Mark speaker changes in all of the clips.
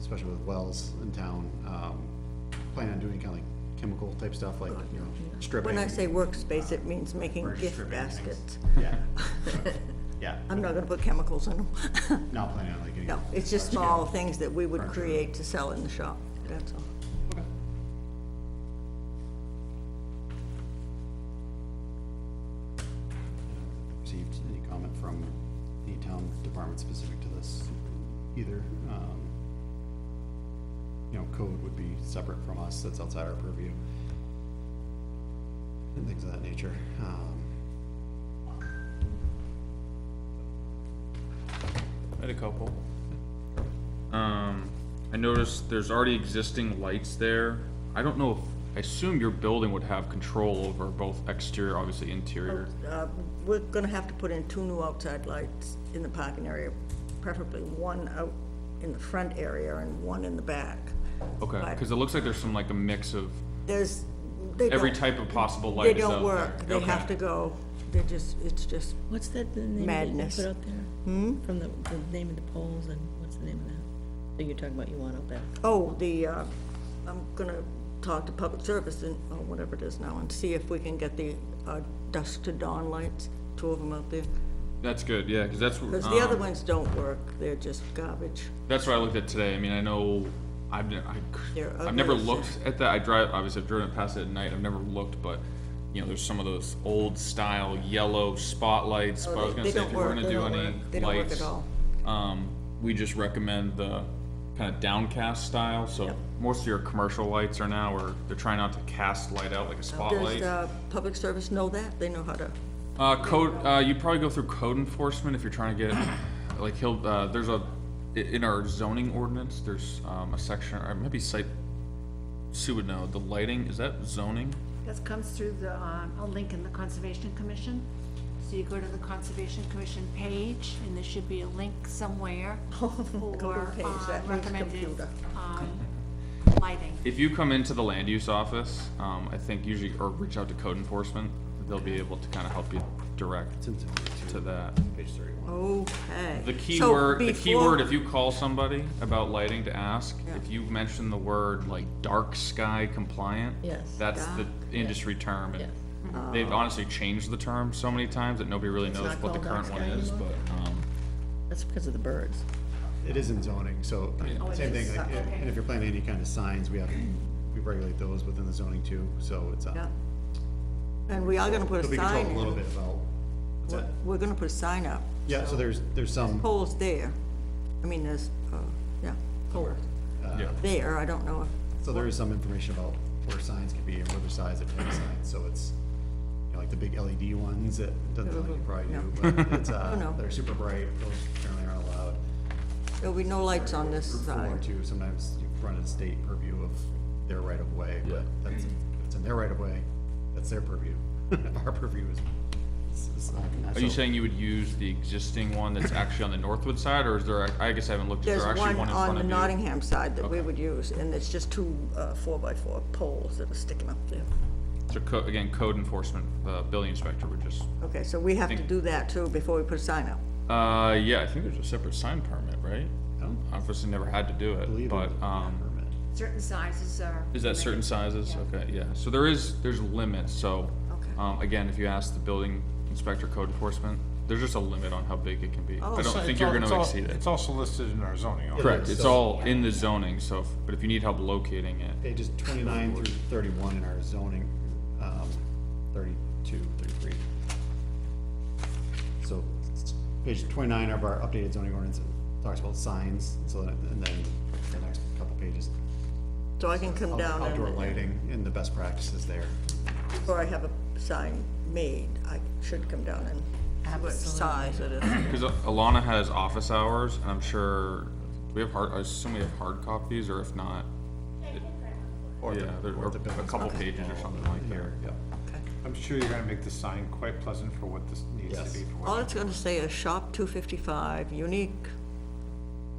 Speaker 1: especially with wells in town, um, plan on doing kind of like chemical type stuff, like, you know, stripping.
Speaker 2: When I say workspace, it means making
Speaker 1: Or
Speaker 2: gift
Speaker 1: stripping things.
Speaker 2: baskets.
Speaker 1: Yeah, yeah,
Speaker 2: I'm not gonna put chemicals in them.
Speaker 1: not planning on like any.
Speaker 2: No, it's just small things that we would
Speaker 1: Furniture.
Speaker 2: create to sell in the shop, that's all.
Speaker 1: Okay. Received any comment from any town department specific to this either, um, you know, code would be separate from us, that's outside our purview. And things of that nature, um,
Speaker 3: I had a couple. Um, I noticed there's already existing lights there. I don't know if, I assume your building would have control over both exterior, obviously interior.
Speaker 2: Uh, We're gonna have to put in two new outside lights in the parking area, preferably one out in the front area and one in the back.
Speaker 3: Okay,
Speaker 2: But
Speaker 3: cause it looks like there's some, like a mix of,
Speaker 2: There's, they don't.
Speaker 3: every type of possible
Speaker 2: They
Speaker 3: light is out
Speaker 2: don't
Speaker 3: there.
Speaker 2: work, they
Speaker 3: Okay.
Speaker 2: have to go, they're just, it's just,
Speaker 4: What's that, the name that you
Speaker 2: Madness.
Speaker 4: put out there? Hmm? From the, the name of the poles and what's the name of that? That you're talking about you want out there?
Speaker 2: oh, the, uh, I'm gonna talk to public service and, or whatever it is now, and see if we can get the uh, dusk to dawn lights, two of them out there.
Speaker 3: That's good, yeah, cause that's.
Speaker 2: Because the other
Speaker 3: um,
Speaker 2: ones don't work, they're just garbage.
Speaker 3: That's what I looked at today. I mean, I know I've ne- I, c-
Speaker 2: They're
Speaker 3: I've never
Speaker 2: ugly, so-
Speaker 3: looked at that. I drive obviously I've driven past it at night. I've never looked, but you know, there's some of those old style yellow spotlights. but I was
Speaker 2: Oh, they-
Speaker 3: gonna
Speaker 2: they
Speaker 3: say if
Speaker 2: don't
Speaker 3: we were
Speaker 2: work,
Speaker 3: gonna
Speaker 2: they
Speaker 3: do
Speaker 2: don't
Speaker 3: any
Speaker 2: work, they don't work at
Speaker 3: lights,
Speaker 2: all.
Speaker 3: um, we just recommend the kind of downcast style. So most of your commercial lights are now, or they're trying not to cast light out like a spotlight.
Speaker 2: Does, uh, public service know that? They know how to,
Speaker 3: Uh, code, uh, you probably go through code enforcement if you're trying to get, like, he'll, uh, there's a, i- in our zoning ordinance, there's, um, a section, or maybe site, Sue would know, the lighting, is that zoning?
Speaker 5: That comes through the, um, a link in the Conservation Commission. So you go to the Conservation Commission page, and there should be a link somewhere for
Speaker 2: page,
Speaker 5: uh,
Speaker 2: that means
Speaker 5: recommended
Speaker 2: computer.
Speaker 5: um, lighting.
Speaker 3: If you come into the land use office, um, I think usually, or reach out to code enforcement, they'll be able to kind of help you direct
Speaker 1: since it's
Speaker 3: to that.
Speaker 1: page thirty-one.
Speaker 2: okay.
Speaker 3: The key
Speaker 2: So
Speaker 3: word, the key
Speaker 2: before-
Speaker 3: word, if you call somebody about lighting to ask, if you mention the word like dark sky compliant,
Speaker 4: Yes.
Speaker 3: that's the
Speaker 2: Dark,
Speaker 3: industry term. and They've
Speaker 2: Oh.
Speaker 3: honestly changed the term so many times that nobody really knows
Speaker 4: not
Speaker 3: what the
Speaker 4: called dark
Speaker 3: current one
Speaker 4: sky
Speaker 3: is,
Speaker 4: anymore?
Speaker 3: but, um,
Speaker 4: That's because of the birds.
Speaker 1: It is in zoning, so,
Speaker 5: it
Speaker 1: same
Speaker 5: is,
Speaker 1: thing, like,
Speaker 5: uh,
Speaker 1: if-
Speaker 5: okay.
Speaker 1: and if you're planning any kind of signs, we have, we regulate those within the zoning too, so it's, uh,
Speaker 2: Yeah. And we are gonna put
Speaker 1: But
Speaker 2: a
Speaker 1: we control
Speaker 2: sign
Speaker 1: a
Speaker 2: in.
Speaker 1: little bit about, what's that?
Speaker 2: We're gonna put a sign up.
Speaker 1: Yeah, so there's, there's some,
Speaker 2: Poles there. I mean, there's, uh, yeah, poles
Speaker 1: Uh,
Speaker 3: yeah.
Speaker 2: there. I don't know if
Speaker 1: so there is some information about where signs can be and what the size of any signs, so it's, you know, like the big LED ones that doesn't sound like you probably do, but it's,
Speaker 2: Oh,
Speaker 1: uh,
Speaker 2: no.
Speaker 1: they're super bright, those generally aren't allowed.
Speaker 2: There'll be no lights on this
Speaker 1: Route four
Speaker 2: side.
Speaker 1: too, sometimes you run a state purview of their right of way, but
Speaker 3: Yeah.
Speaker 1: that's, if it's in their right of way, that's their purview. Our purview is, uh, it's, it's not.
Speaker 3: Are you
Speaker 1: so-
Speaker 3: saying you would use the existing one that's actually on the Northwood side, or is there, a- I guess I haven't looked, is
Speaker 2: There's
Speaker 3: there actually
Speaker 2: one
Speaker 3: one in
Speaker 2: on
Speaker 3: front
Speaker 2: the
Speaker 3: of you?
Speaker 2: Nottingham side that we would use, and it's just two, uh, four-by-four poles that are sticking up there.
Speaker 3: So co- again, code enforcement, the building inspector would just,
Speaker 2: Okay, so we have to
Speaker 3: Think-
Speaker 2: do that too before we put a sign up.
Speaker 3: uh, yeah, I think there's a separate sign permit, right?
Speaker 1: I don't
Speaker 3: Obviously never had to do it,
Speaker 1: believe in
Speaker 3: but,
Speaker 1: the
Speaker 3: um.
Speaker 1: permit.
Speaker 5: Certain sizes are.
Speaker 3: Is that certain sizes? Okay, yeah, so there is, there's a limit, so,
Speaker 2: Okay.
Speaker 3: um, again, if you ask the building inspector code enforcement, there's just a limit on how big it can be. I
Speaker 6: Oh, So
Speaker 3: don't
Speaker 6: it's
Speaker 3: think you're
Speaker 6: all- it's
Speaker 3: gonna
Speaker 6: all-
Speaker 3: exceed it.
Speaker 6: It's also listed in our zoning. ordinance.
Speaker 3: Correct,
Speaker 1: is,
Speaker 3: it's
Speaker 1: so-
Speaker 3: all in the zoning, so, if- but if you need help locating it,
Speaker 1: pages twenty-nine through thirty-one in our zoning, um, thirty-two, thirty-three. So, page twenty-nine of our updated zoning ordinance it talks about signs, so, that- and then the next couple pages,
Speaker 2: So I can come
Speaker 1: out-
Speaker 2: down
Speaker 1: outdoor
Speaker 2: and,
Speaker 1: lighting and the best practices there.
Speaker 2: before I have a sign made, I should come down and see what size it is.
Speaker 3: cause Alana has office hours, and I'm sure, do we have hard, I assume we have hard copies, or if not,
Speaker 1: Or the-
Speaker 3: yeah, there
Speaker 1: or
Speaker 3: are
Speaker 1: the
Speaker 3: a
Speaker 1: building
Speaker 3: couple
Speaker 1: inspector
Speaker 3: pages or
Speaker 1: all
Speaker 3: something like that.
Speaker 1: Here, yep.
Speaker 6: I'm sure you're gonna make the sign quite pleasant for what this needs
Speaker 1: Yes.
Speaker 6: to be. for what
Speaker 2: All
Speaker 6: it-
Speaker 2: it's gonna say is shop two fifty-five, unique,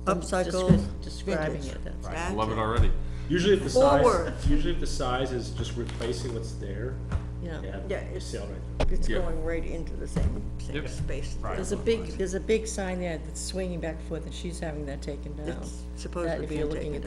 Speaker 2: upcycle.
Speaker 4: descri- describing
Speaker 2: vintage.
Speaker 4: it, that's-
Speaker 3: I
Speaker 2: That's
Speaker 3: love it already.
Speaker 7: Usually if the
Speaker 2: Forward.
Speaker 7: size, usually if the size is just replacing what's there, they
Speaker 4: Yeah.
Speaker 7: have
Speaker 2: Yeah,
Speaker 7: a
Speaker 2: it's-
Speaker 7: sale right there.
Speaker 2: It's
Speaker 3: Yeah.
Speaker 2: going right into the same, same
Speaker 3: Yep.
Speaker 2: space.
Speaker 4: There's a big, there's a big sign there that's swinging back and forth and she's having that taken down.
Speaker 2: It's supposedly
Speaker 4: That if
Speaker 2: being
Speaker 4: you're looking
Speaker 2: taken
Speaker 4: at